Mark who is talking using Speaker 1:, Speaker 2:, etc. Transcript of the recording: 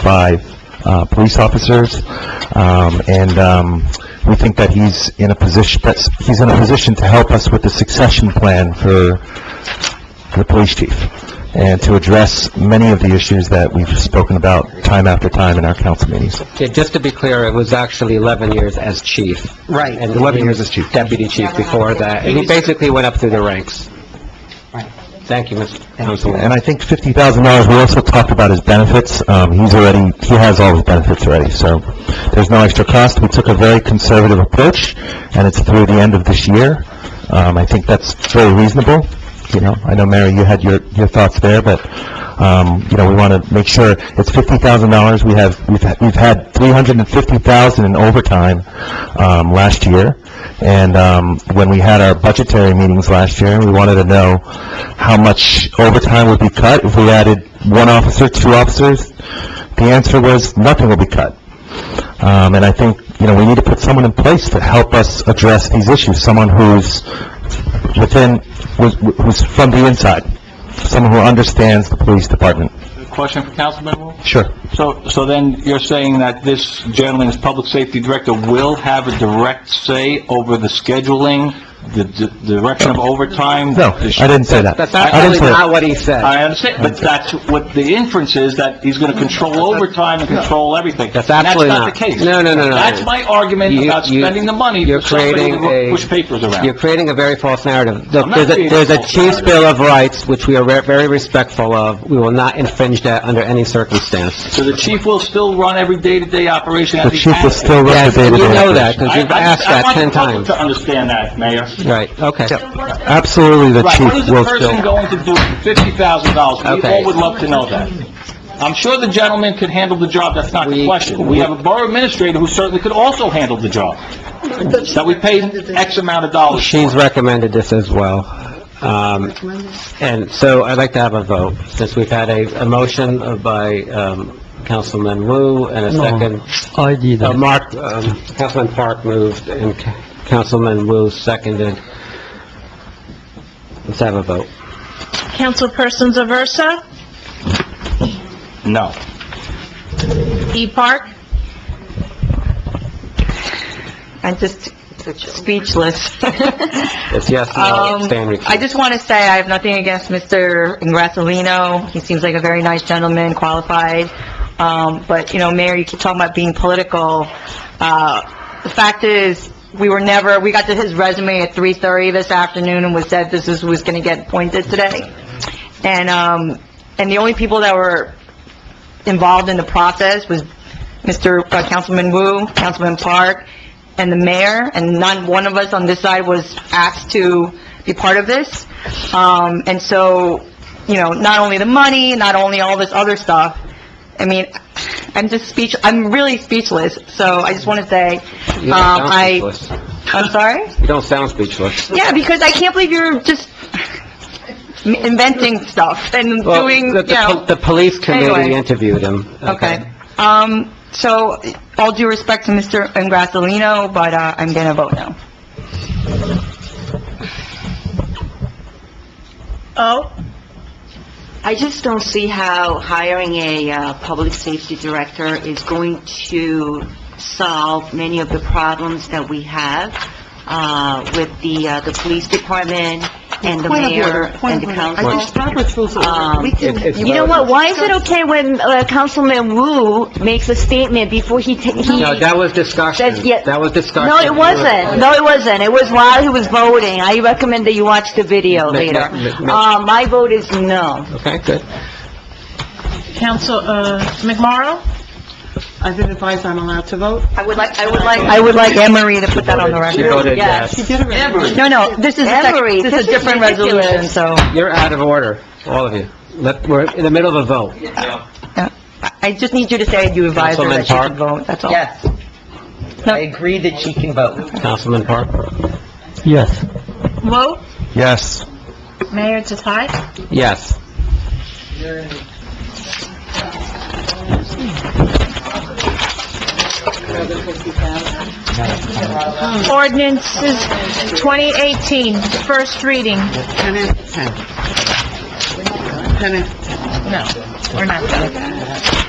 Speaker 1: 45 uh, police officers, Um, and um, we think that he's in a position, that's, he's in a position to help us with the succession plan for the police chief, and to address many of the issues that we've spoken about time after time in our council meetings.
Speaker 2: Yeah, just to be clear, it was actually 11 years as chief.
Speaker 3: Right.
Speaker 2: And
Speaker 1: 11
Speaker 2: he
Speaker 1: years
Speaker 2: was
Speaker 1: as chief.
Speaker 2: Deputy chief before that, and he basically went up through the ranks.
Speaker 3: Right.
Speaker 2: Thank you, Mr. Councilman.
Speaker 1: And I think fifty thousand dollars, we also talked about his benefits, um, he's already, he has all his benefits already, so there's no extra cost, we took a very conservative approach, and it's through the end of this year, um, I think that's very reasonable, you know, I know, Mary, you had your, your thoughts there, but, um, you know, we want to make sure, it's fifty thousand dollars, we have, we've, ha- we've had three hundred and fifty thousand in overtime, um, last year, and, um, when we had our budgetary meetings last year, we wanted to know how much overtime would be cut if we added one officer, two officers, the answer was, nothing will be cut. Um, and I think, you know, we need to put someone in place to help us address these issues, someone who's within, who's who's from the inside, someone who understands the police department.
Speaker 4: Question for Councilman Wu?
Speaker 1: Sure.
Speaker 4: So, so then you're saying that this gentleman, as public safety director, will have a direct say over the scheduling, the the direction of overtime?
Speaker 1: No, I
Speaker 4: the sh-
Speaker 1: didn't say that.
Speaker 2: That's
Speaker 1: I didn't
Speaker 2: actually
Speaker 1: say
Speaker 2: not
Speaker 1: that.
Speaker 2: what he said.
Speaker 4: I understand, but that's what the inference is, that he's going to control overtime and control everything.
Speaker 2: That's
Speaker 4: And
Speaker 2: absolutely
Speaker 4: That's
Speaker 2: not.
Speaker 4: not the case.
Speaker 2: No, no, no, no.
Speaker 4: That's my argument
Speaker 2: You-
Speaker 4: about
Speaker 2: you-
Speaker 4: spending the money
Speaker 2: you're
Speaker 4: for somebody
Speaker 2: creating a-
Speaker 4: to push papers
Speaker 2: You're
Speaker 4: around.
Speaker 2: creating a very false narrative. Look,
Speaker 4: I'm not
Speaker 2: there's a,
Speaker 4: creating
Speaker 2: there's
Speaker 4: a
Speaker 2: a
Speaker 4: false
Speaker 2: chief's
Speaker 4: narrative.
Speaker 2: bill of rights, which we are ve- very respectful of. We will not infringe that under any circumstance.
Speaker 4: So the chief will still run every day-to-day operation
Speaker 1: The
Speaker 4: as he
Speaker 1: chief will
Speaker 4: has to.
Speaker 1: still run the
Speaker 2: Yes, you
Speaker 1: day-to-day
Speaker 2: know
Speaker 1: operation.
Speaker 2: that, because
Speaker 4: I-
Speaker 2: you've
Speaker 4: I-
Speaker 2: asked that 10
Speaker 4: I want
Speaker 2: times.
Speaker 4: the public to understand that, Mayor.
Speaker 2: Right, okay.
Speaker 1: Absolutely, the
Speaker 4: Right, what is
Speaker 1: chief
Speaker 4: the
Speaker 1: will
Speaker 4: person
Speaker 1: still...
Speaker 4: going to do for fifty thousand dollars? We
Speaker 2: Okay.
Speaker 4: all would love to know that. I'm sure the gentleman could handle the job, that's not the
Speaker 2: We-
Speaker 4: question. We have a borough administrator who certainly could also handle the job, that we paid X amount of dollars.
Speaker 2: She's recommended this as well. Um, And so I'd like to have a vote, since we've had a, a motion by um, Councilman Wu and a second.
Speaker 5: I did
Speaker 2: Uh, Mark, um, Councilman Park moved and Ca- Councilman Wu seconded. Let's have a vote.
Speaker 6: Councilperson Aversa,
Speaker 4: No.
Speaker 6: E. Park,
Speaker 7: I'm just speechless.
Speaker 2: It's yes, no,
Speaker 7: Um,
Speaker 2: stand recused.
Speaker 7: I just want to say I have nothing against Mr. Ingrassalino. He seems like a very nice gentleman, qualified. Um, but, you know, Mayor, you keep talking about being political. Uh, the fact is, we were never, we got to his resume at 3:30 this afternoon and was said this is who was going to get appointed today. And, um, and the only people that were involved in the process was Mr. uh, Councilman Wu, Councilman Park, and the mayor, and not one of us on this side was asked to be part of this. Um, and so, you know, not only the money, not only all this other stuff, I mean, I'm just speech, I'm really speechless, so I just want to say, um,
Speaker 2: You don't sound
Speaker 7: I,
Speaker 2: speechless.
Speaker 7: I'm sorry?
Speaker 2: You don't sound speechless.
Speaker 7: Yeah, because I can't believe you're just inventing stuff and
Speaker 2: Well,
Speaker 7: doing, you
Speaker 2: the- the
Speaker 7: know.
Speaker 2: pol- The police committee
Speaker 7: Anyway.
Speaker 2: interviewed him.
Speaker 7: Okay. Um, so, all due respect to Mr. Ingrassalino, but, uh, I'm gonna vote no.
Speaker 6: O.
Speaker 8: I just don't see how hiring a uh, public safety director is going to solve many of the problems that we have uh, with the, uh, the police department and the
Speaker 3: Point of order,
Speaker 8: mayor
Speaker 3: point
Speaker 8: and
Speaker 3: of
Speaker 8: the
Speaker 3: order.
Speaker 8: council.
Speaker 3: I think Robert's rules of order.
Speaker 8: Um,
Speaker 3: We
Speaker 2: It-
Speaker 3: can,
Speaker 2: it's
Speaker 8: You know what,
Speaker 2: relevant.
Speaker 8: why is it okay when uh, Councilman Wu makes a statement before he, ta- he...
Speaker 2: No, that was discussion.
Speaker 8: That's- yeah.
Speaker 2: That was discussion.
Speaker 8: No, it wasn't. No, it wasn't. It was while he was voting. I recommend that you watch the video
Speaker 2: Ma-
Speaker 8: later.
Speaker 2: ma- ma-
Speaker 8: Uh, my vote is no.
Speaker 2: Okay, good.
Speaker 6: Council, uh, McMorro,
Speaker 3: I've been advised I'm allowed to vote.
Speaker 7: I would like, I would like, I would like Anne Marie to put that on the
Speaker 2: She
Speaker 7: record.
Speaker 2: voted
Speaker 8: Yes.
Speaker 2: yes.
Speaker 3: Did it already.
Speaker 7: No, no, this is, a
Speaker 8: Anne Marie,
Speaker 7: sec- this is a
Speaker 8: this is
Speaker 7: different
Speaker 8: ridiculous.
Speaker 7: resolution, so
Speaker 2: You're out of order, all of you. Let, we're in the middle of a vote.
Speaker 7: I I just need you to say you advised her
Speaker 2: Councilman
Speaker 7: that she
Speaker 2: Park?
Speaker 7: could vote, that's all.
Speaker 3: Yes. I agree that she can vote.
Speaker 2: Councilman Park?
Speaker 5: Yes.
Speaker 6: vote,
Speaker 1: Yes.
Speaker 6: Mayor Tatai.
Speaker 2: Yes.
Speaker 6: Ordinances 2018, first reading.
Speaker 3: 10 after 10. 10 after 10.
Speaker 6: No, we're not done.